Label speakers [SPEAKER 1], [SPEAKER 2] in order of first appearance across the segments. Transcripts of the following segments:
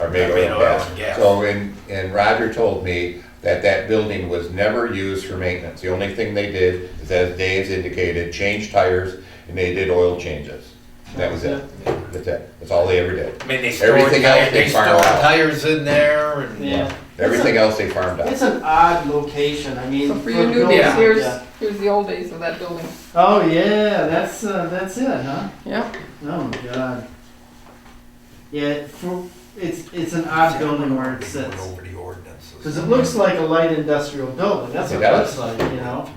[SPEAKER 1] are made
[SPEAKER 2] Made
[SPEAKER 1] oil
[SPEAKER 2] oil
[SPEAKER 1] and
[SPEAKER 2] and
[SPEAKER 1] gas.
[SPEAKER 2] gas.
[SPEAKER 1] So, and, and Roger told me that that building was never used for maintenance. The only thing they did is, as Dave's indicated, change tires and they did oil changes. That was it. That's it. That's all they ever did.
[SPEAKER 2] I mean, they store,
[SPEAKER 1] Everything else
[SPEAKER 2] tires-
[SPEAKER 1] they
[SPEAKER 2] they store
[SPEAKER 1] fire out.
[SPEAKER 2] tires in there and.
[SPEAKER 3] Yeah.
[SPEAKER 1] Everything else they farmed out.
[SPEAKER 3] It's an odd location, I mean.
[SPEAKER 4] So for
[SPEAKER 3] a
[SPEAKER 4] your new
[SPEAKER 3] building,
[SPEAKER 4] days,
[SPEAKER 2] Yeah.
[SPEAKER 4] here's,
[SPEAKER 3] yeah.
[SPEAKER 4] here's the old days of that building.
[SPEAKER 3] Oh, yeah, that's, uh, that's it, huh?
[SPEAKER 4] Yeah,
[SPEAKER 3] Oh, my God. Yeah, for, it's, it's an odd building where it
[SPEAKER 2] Went
[SPEAKER 3] sits.
[SPEAKER 2] Over the ordinances.
[SPEAKER 3] Cause it looks like a light industrial building, that's
[SPEAKER 1] It
[SPEAKER 3] what it looks
[SPEAKER 1] does.
[SPEAKER 3] like, you know?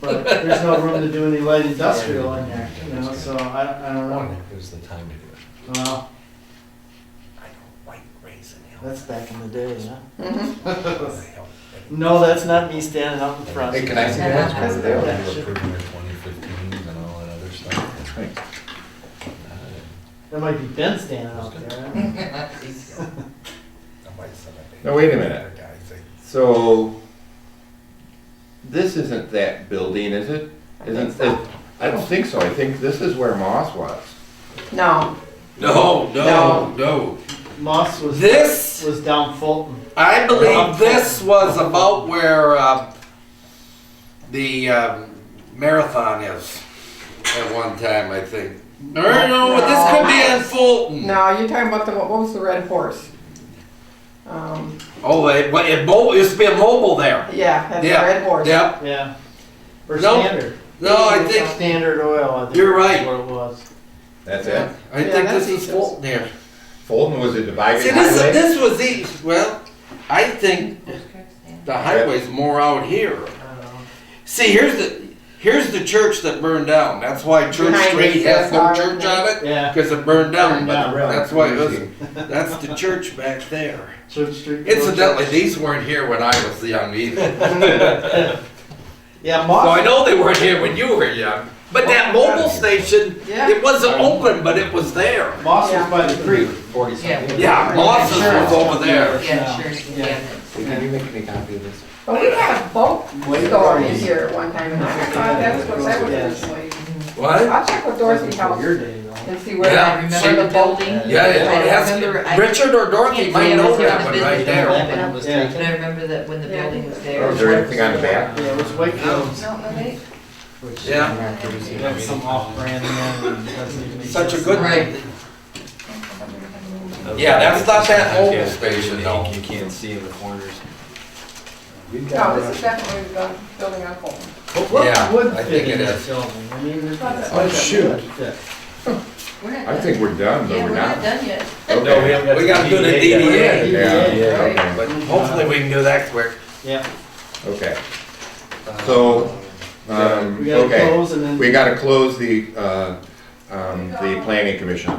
[SPEAKER 3] But there's no room to do any light industrial in there, you know, so I, I don't know.
[SPEAKER 5] It was the time to do it.
[SPEAKER 3] Well,
[SPEAKER 2] I don't like raising hell.
[SPEAKER 3] that's back in the day, huh?
[SPEAKER 4] mhm.
[SPEAKER 3] No, that's not me standing up in front.
[SPEAKER 1] Hey, can I see that?
[SPEAKER 4] That's
[SPEAKER 5] They
[SPEAKER 4] there.
[SPEAKER 5] were approving their 2015s and all that other stuff. That's right.
[SPEAKER 3] That might be Ben standing up there. I don't know.
[SPEAKER 1] Now, wait a minute. So, this isn't that building, is it?
[SPEAKER 4] I think
[SPEAKER 1] Isn't,
[SPEAKER 4] so.
[SPEAKER 1] it- I don't think so. I think this is where Moss was.
[SPEAKER 4] No,
[SPEAKER 2] No, no, no.
[SPEAKER 3] Moss was.
[SPEAKER 2] This,
[SPEAKER 3] Was down Fulton.
[SPEAKER 2] I believe this was about where, um, the, um, marathon is at one time, I think. No, no, no, this could be in Fulton.
[SPEAKER 4] no, you're talking about the, what was the red horse? Um,
[SPEAKER 2] Oh, it, but it mo- it used to be a mobile there.
[SPEAKER 4] yeah, that's the
[SPEAKER 2] Yeah,
[SPEAKER 4] red horse.
[SPEAKER 2] Yep.
[SPEAKER 3] Yeah. Or
[SPEAKER 2] No.
[SPEAKER 3] Standard.
[SPEAKER 2] No, I think,
[SPEAKER 3] Standard Oil. I think
[SPEAKER 2] You're
[SPEAKER 3] that's
[SPEAKER 2] right.
[SPEAKER 3] What it was.
[SPEAKER 1] That's
[SPEAKER 2] I
[SPEAKER 4] Yeah,
[SPEAKER 2] think
[SPEAKER 4] that's
[SPEAKER 2] this is
[SPEAKER 4] Eaton's.
[SPEAKER 2] Fulton there.
[SPEAKER 1] Fulton was a divided
[SPEAKER 2] See, this,
[SPEAKER 1] highway.
[SPEAKER 2] this was east, well, I think the highway's more out here.
[SPEAKER 3] I don't know.
[SPEAKER 2] See, here's the, here's the church that burned down, that's why Church
[SPEAKER 4] Behind it,
[SPEAKER 2] Street has no
[SPEAKER 4] that's
[SPEAKER 2] church
[SPEAKER 4] our-
[SPEAKER 2] on it,
[SPEAKER 3] Yeah.
[SPEAKER 2] because it burned down,
[SPEAKER 3] Burned
[SPEAKER 2] but
[SPEAKER 3] down.
[SPEAKER 2] that's why it was, that's the church back there.
[SPEAKER 3] Church Street.
[SPEAKER 2] Incidentally, these weren't here when I was young either,
[SPEAKER 3] Yeah,
[SPEAKER 2] so
[SPEAKER 3] Moss.
[SPEAKER 2] I know they weren't here when you were young, but that mobile station,
[SPEAKER 4] Yeah.
[SPEAKER 2] it wasn't open, but it was there.
[SPEAKER 3] Moss
[SPEAKER 4] Yeah.
[SPEAKER 3] was by the creek.
[SPEAKER 5] Forty something.
[SPEAKER 2] Yeah, Moss's was over there.
[SPEAKER 6] Yeah, sure, it's
[SPEAKER 3] Yeah.
[SPEAKER 6] damaged.
[SPEAKER 5] Can you make any copy of this?
[SPEAKER 4] But we had a boat
[SPEAKER 3] Way
[SPEAKER 4] store
[SPEAKER 3] back.
[SPEAKER 4] in here at one time, and I thought that was what that was originally.
[SPEAKER 2] What?
[SPEAKER 4] I'll check with Dorothy House
[SPEAKER 3] Your day, though.
[SPEAKER 4] and see
[SPEAKER 2] Yeah,
[SPEAKER 4] where,
[SPEAKER 6] Remember
[SPEAKER 4] where
[SPEAKER 6] the
[SPEAKER 4] the boat.
[SPEAKER 6] building?
[SPEAKER 2] Yeah, it it
[SPEAKER 6] Remember, I-
[SPEAKER 2] has, Richard or Dorothy
[SPEAKER 6] Can't
[SPEAKER 2] might
[SPEAKER 6] say
[SPEAKER 2] know
[SPEAKER 6] it was
[SPEAKER 2] that one
[SPEAKER 6] business
[SPEAKER 2] right
[SPEAKER 6] that
[SPEAKER 2] there.
[SPEAKER 6] opened,
[SPEAKER 5] was
[SPEAKER 3] Yeah.
[SPEAKER 6] But I remember that when the building was there.
[SPEAKER 1] Is there anything on the
[SPEAKER 3] Yeah,
[SPEAKER 1] back?
[SPEAKER 3] it was
[SPEAKER 2] Oh.
[SPEAKER 3] Wakefield's.
[SPEAKER 6] No, no, they,
[SPEAKER 3] which-
[SPEAKER 2] Yeah.
[SPEAKER 3] That's some off-brand name. and doesn't even make
[SPEAKER 2] Such a
[SPEAKER 3] sense.
[SPEAKER 2] good
[SPEAKER 6] Right.
[SPEAKER 2] Yeah, that's not that old
[SPEAKER 5] Yeah.
[SPEAKER 2] station, no.
[SPEAKER 5] You can't see in the corners.
[SPEAKER 4] No, this is definitely the building on Fulton.
[SPEAKER 3] But what
[SPEAKER 2] Yeah,
[SPEAKER 3] would
[SPEAKER 2] I
[SPEAKER 3] fit
[SPEAKER 2] think
[SPEAKER 3] in
[SPEAKER 2] it
[SPEAKER 3] that
[SPEAKER 2] is.
[SPEAKER 3] building? I mean, there's.
[SPEAKER 4] Oh,
[SPEAKER 5] shoot.
[SPEAKER 6] we're not
[SPEAKER 1] I
[SPEAKER 6] done.
[SPEAKER 1] think we're done, but
[SPEAKER 6] Yeah,
[SPEAKER 1] we're not.
[SPEAKER 6] done yet.
[SPEAKER 1] Okay.
[SPEAKER 5] haven't
[SPEAKER 2] We gotta do the
[SPEAKER 3] yet.
[SPEAKER 2] DDA,
[SPEAKER 1] Yeah,
[SPEAKER 5] Yeah.
[SPEAKER 1] okay,
[SPEAKER 2] but hopefully we can do that quick.
[SPEAKER 3] Yeah,
[SPEAKER 1] okay. So, um,
[SPEAKER 3] Uh, we gotta
[SPEAKER 1] okay,
[SPEAKER 3] close and then.
[SPEAKER 1] we gotta close the, uh, um, the planning commission.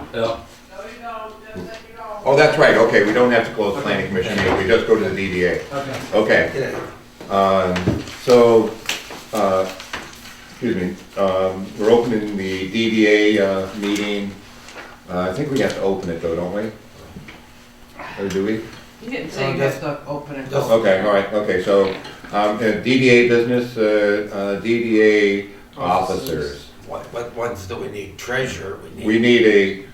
[SPEAKER 1] Oh, that's right, okay, we don't have to close the planning commission, meeting, we just go to the DDA.
[SPEAKER 3] Okay.
[SPEAKER 1] Okay, Um, so, uh, excuse me, um, we're opening the DDA, uh, meeting. Uh, I think we have to open it though, don't we? Or do we?
[SPEAKER 6] You didn't say you have to open it.
[SPEAKER 2] Just-
[SPEAKER 1] Okay, all right, okay, so, um, uh, DDA business, uh, uh, DDA officers.
[SPEAKER 2] What, what ones do we need? Treasurer, we
[SPEAKER 1] We
[SPEAKER 2] need.
[SPEAKER 1] need a,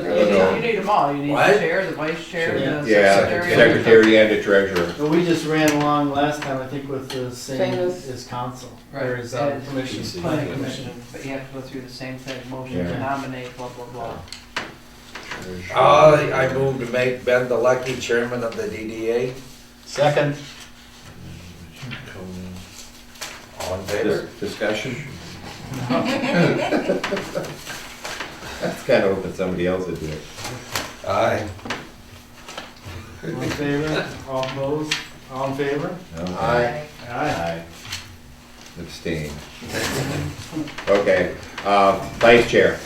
[SPEAKER 1] I don't know.
[SPEAKER 6] You need them all, you need
[SPEAKER 2] What?
[SPEAKER 6] the chair, the vice chair,
[SPEAKER 3] Yeah.
[SPEAKER 6] the
[SPEAKER 1] yeah,
[SPEAKER 6] secretary.
[SPEAKER 1] secretary and a treasurer.
[SPEAKER 3] But we just ran along last time, I think, with the same
[SPEAKER 4] Same as-
[SPEAKER 3] as council.
[SPEAKER 6] Right.
[SPEAKER 3] There is, uh,
[SPEAKER 6] And-
[SPEAKER 3] commission,
[SPEAKER 5] PC.
[SPEAKER 3] planning
[SPEAKER 6] Planning
[SPEAKER 3] commission.
[SPEAKER 6] commission, but you have to go through the same thing, motion
[SPEAKER 1] Yeah.
[SPEAKER 6] to nominate, blah, blah, blah.
[SPEAKER 5] Oh,
[SPEAKER 2] I, Ah, I
[SPEAKER 5] Uh,
[SPEAKER 2] move to make Ben the lucky chairman of the DDA.
[SPEAKER 3] Second.
[SPEAKER 2] All in
[SPEAKER 1] Dis-
[SPEAKER 2] favor?
[SPEAKER 1] Discussion? That's kind of open somebody else would do it.
[SPEAKER 2] Aye.
[SPEAKER 3] All in favor? All opposed? All in favor?
[SPEAKER 1] Okay.
[SPEAKER 3] Aye.
[SPEAKER 1] Aye. Abstain. Okay, uh, vice chair.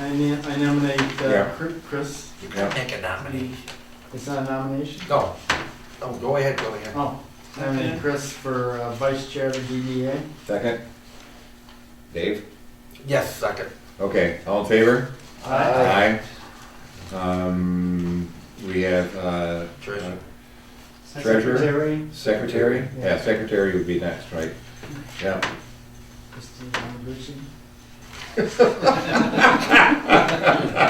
[SPEAKER 3] I ne- I nominate uh,
[SPEAKER 1] Yeah.
[SPEAKER 3] Cr- Chris.
[SPEAKER 2] You can make a nominee.
[SPEAKER 3] It's not a nomination?
[SPEAKER 2] No, no, go ahead, go ahead.
[SPEAKER 3] Oh, nominate Chris for uh, vice chair of the DDA.
[SPEAKER 1] Second. Dave?
[SPEAKER 2] Yes, second.
[SPEAKER 1] Okay, all in favor?
[SPEAKER 3] Aye.
[SPEAKER 1] Um, we have, uh,
[SPEAKER 2] Treasurer.
[SPEAKER 1] Treasurer?
[SPEAKER 3] Secretary.
[SPEAKER 1] secretary? Yeah, secretary would be next, right? Yeah.
[SPEAKER 3] Christine Amaguchi.